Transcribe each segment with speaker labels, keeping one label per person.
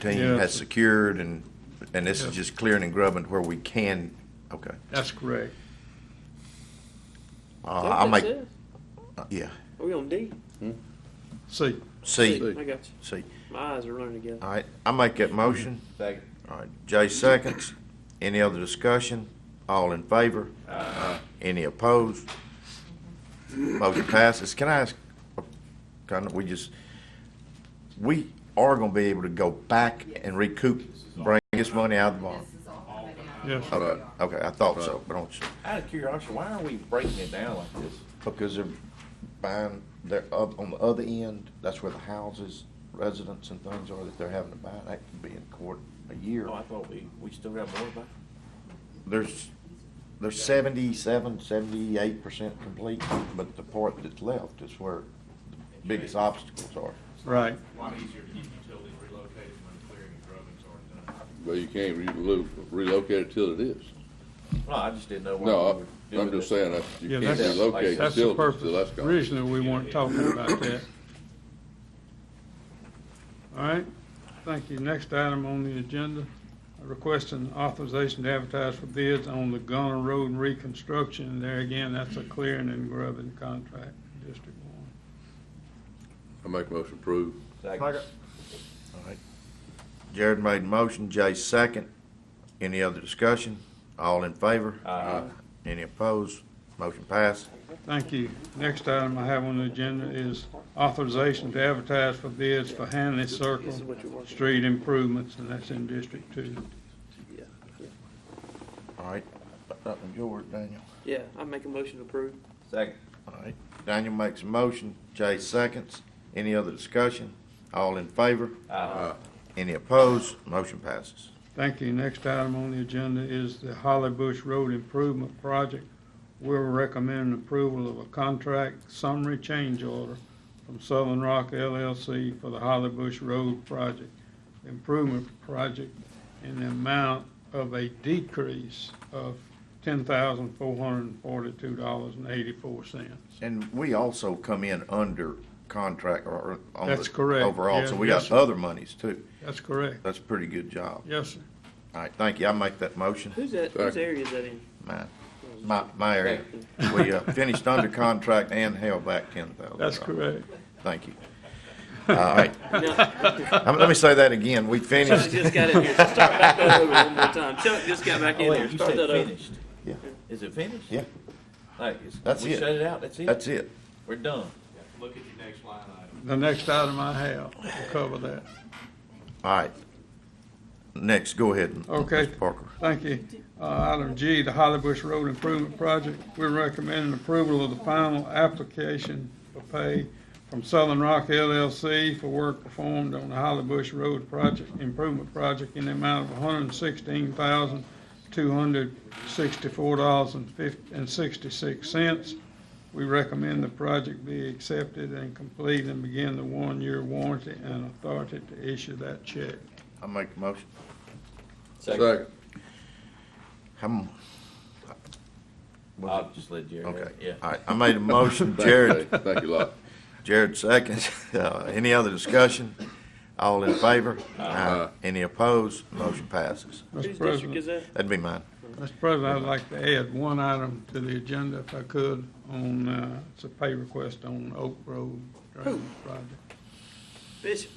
Speaker 1: team
Speaker 2: Yeah.
Speaker 1: has secured and, and this
Speaker 2: Yeah.
Speaker 1: is just clearing and grubbing where we can, okay.
Speaker 2: That's correct.
Speaker 1: Uh, I'll make, uh,
Speaker 3: Are
Speaker 1: yeah,
Speaker 3: we on D?
Speaker 2: See,
Speaker 1: C,
Speaker 2: C.
Speaker 3: I got you.
Speaker 1: C.
Speaker 3: My eyes are running together.
Speaker 4: Uh.
Speaker 1: All right, I make that motion.
Speaker 4: Second.
Speaker 1: All right, Jay seconds. Any other discussion? All in favor? Any opposed? Motion passes. Can I ask, kind of, we just, we are gonna be able to go back and recoup, bring this money out of the bond?
Speaker 5: This is all coming out.
Speaker 2: Yes.
Speaker 1: Okay, okay, I thought so, but I don't,
Speaker 4: Out of curiosity, why are we breaking it down like this?
Speaker 1: because they're buying, they're up on the other end, that's where the houses, residents and things are that they're having to buy. That could be in court a year.
Speaker 4: Oh, I thought we, we still got more about it.
Speaker 1: there's, they're seventy-seven, seventy-eight percent complete, but the part that's left is where the biggest obstacles are.
Speaker 2: right.
Speaker 6: A lot easier to get utilities relocated when clearing and grubbings aren't done.
Speaker 7: But you can't relo- relocate it till it is.
Speaker 4: No, I just didn't know why. we
Speaker 7: No,
Speaker 4: were
Speaker 7: I- I'm
Speaker 4: doing
Speaker 7: just
Speaker 4: this.
Speaker 7: saying that you
Speaker 2: Yeah,
Speaker 7: can't
Speaker 2: that's-
Speaker 7: relocate
Speaker 2: That's the
Speaker 7: facilities
Speaker 2: purpose.
Speaker 7: till that's gone.
Speaker 2: Originally, we weren't talking about that. All right, thank you. Next item on the agenda, requesting authorization to advertise for bids on the Gunner Road reconstruction. There again, that's a clearing and grubbing contract, District One.
Speaker 7: I make a motion approve.
Speaker 4: Second.
Speaker 1: Jared made a motion, Jay second. Any other discussion? All in favor?
Speaker 4: Aye.
Speaker 1: Any opposed? Motion passed.
Speaker 2: Thank you. Next item I have on the agenda is authorization to advertise for bids for Hanley Circle
Speaker 3: This is what you're working on.
Speaker 2: Street improvements, and that's in District Two.
Speaker 1: All right, that was yours, Daniel.
Speaker 3: Yeah, I make a motion to approve.
Speaker 4: Second.
Speaker 1: All right, Daniel makes a motion, Jay seconds. Any other discussion? All in favor?
Speaker 4: Aye.
Speaker 7: Uh-huh.
Speaker 1: Any opposed? Motion passes.
Speaker 2: Thank you. Next item on the agenda is the Holly Bush Road Improvement Project. We'll recommend approval of a contract summary change order from Southern Rock LLC for the Holly Bush Road Project Improvement Project in the amount of a decrease of ten thousand four hundred and forty-two dollars and eighty-four cents.
Speaker 1: And we also come in under contract or on the
Speaker 2: That's correct.
Speaker 1: overall, so
Speaker 2: Yeah,
Speaker 1: we
Speaker 2: yes,
Speaker 1: got
Speaker 2: sir.
Speaker 1: other monies too.
Speaker 2: That's correct.
Speaker 1: That's a pretty good job.
Speaker 2: Yes, sir.
Speaker 1: All right, thank you. I make that motion.
Speaker 3: Who's that, whose
Speaker 7: Second.
Speaker 3: area is that in?
Speaker 1: My, my, my area. We uh, finished under contract and held back ten thousand.
Speaker 2: That's correct.
Speaker 1: Thank you. All right,
Speaker 3: No.
Speaker 1: Um, let me say that again. We
Speaker 3: Chuck
Speaker 1: finished,
Speaker 3: just got in here. Start back that over one more time. Chuck just got back in
Speaker 4: Oh, wait,
Speaker 3: here.
Speaker 4: you
Speaker 3: Start
Speaker 4: said
Speaker 3: that over.
Speaker 4: finished.
Speaker 1: Yeah.
Speaker 4: Is it finished?
Speaker 1: yeah,
Speaker 4: Like, it's-
Speaker 1: That's
Speaker 4: we
Speaker 1: it.
Speaker 4: shut it out, that's it?
Speaker 1: that's it.
Speaker 4: We're done.
Speaker 6: Look at your next line item.
Speaker 2: The next item I have will cover that.
Speaker 1: All right. Next, go ahead.
Speaker 2: Okay.
Speaker 1: Mr. Parker.
Speaker 2: Thank you. Uh, Item G, the Holly Bush Road Improvement Project. We're recommending approval of the final application for pay from Southern Rock LLC for work performed on the Holly Bush Road Project Improvement Project in the amount of $116,264.66. We recommend the project be accepted and complete and begin the one-year warranty and authority to issue that check.
Speaker 1: I make the motion.
Speaker 7: Second.
Speaker 1: I'm,
Speaker 4: I'll just let Jerry. have it,
Speaker 1: okay.
Speaker 4: Yeah.
Speaker 1: All right, I made a motion.
Speaker 7: Thank you,
Speaker 1: Jared,
Speaker 7: Dave. Thank you a lot.
Speaker 1: Jared seconds. Uh, Any other discussion? All in favor? Aye. Any opposed? Motion passes.
Speaker 2: Mr.
Speaker 3: Whose district
Speaker 2: President.
Speaker 3: is that?
Speaker 1: That'd be mine.
Speaker 2: Mr. President, I'd like to add one item to the agenda if I could on, uh, it's a pay request on Oak Road Drainage Project.
Speaker 3: Bishop.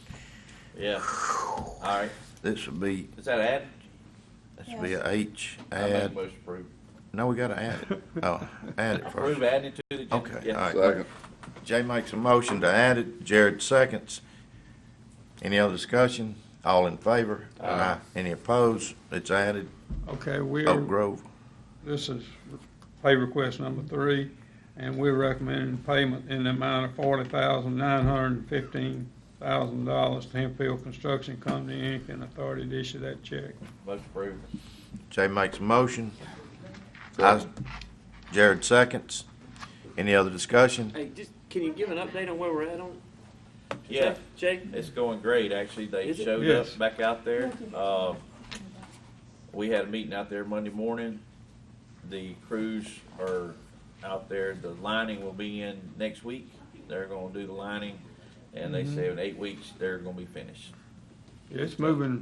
Speaker 4: Yeah. All right.
Speaker 1: This would be,
Speaker 4: Is that add?
Speaker 1: this would be a H,
Speaker 4: I make a
Speaker 1: add,
Speaker 4: motion to approve.
Speaker 1: no, we gotta add it. Oh, add it
Speaker 4: Approve
Speaker 1: first.
Speaker 4: adding to the agenda.
Speaker 1: Okay,
Speaker 4: Yeah.
Speaker 1: all right.
Speaker 7: Second.
Speaker 1: Jay makes a motion to add it, Jared seconds. Any other discussion? All in favor? Aye. Any opposed? It's added,
Speaker 2: Okay,
Speaker 1: Oak
Speaker 2: we're,
Speaker 1: Grove.
Speaker 2: this is pay request number three, and we're recommending payment in the amount of forty thousand, nine hundred and fifteen thousand dollars to Hempfield Construction Company, Inc., and authority to issue that check.
Speaker 4: Motion approved.
Speaker 1: Jay makes a motion. I- Jared seconds. Any other discussion?
Speaker 3: Hey, just, can you give an update on where we're at on?
Speaker 4: Yeah.
Speaker 3: Jay?
Speaker 4: It's going great, actually. They
Speaker 3: Is it?
Speaker 4: showed
Speaker 2: Yes.
Speaker 4: up back out there. Uh, we had a meeting out there Monday morning. The crews are out there. The lining will be in next week. They're going to do the lining, and they say in eight weeks they're going to be finished.
Speaker 2: It's moving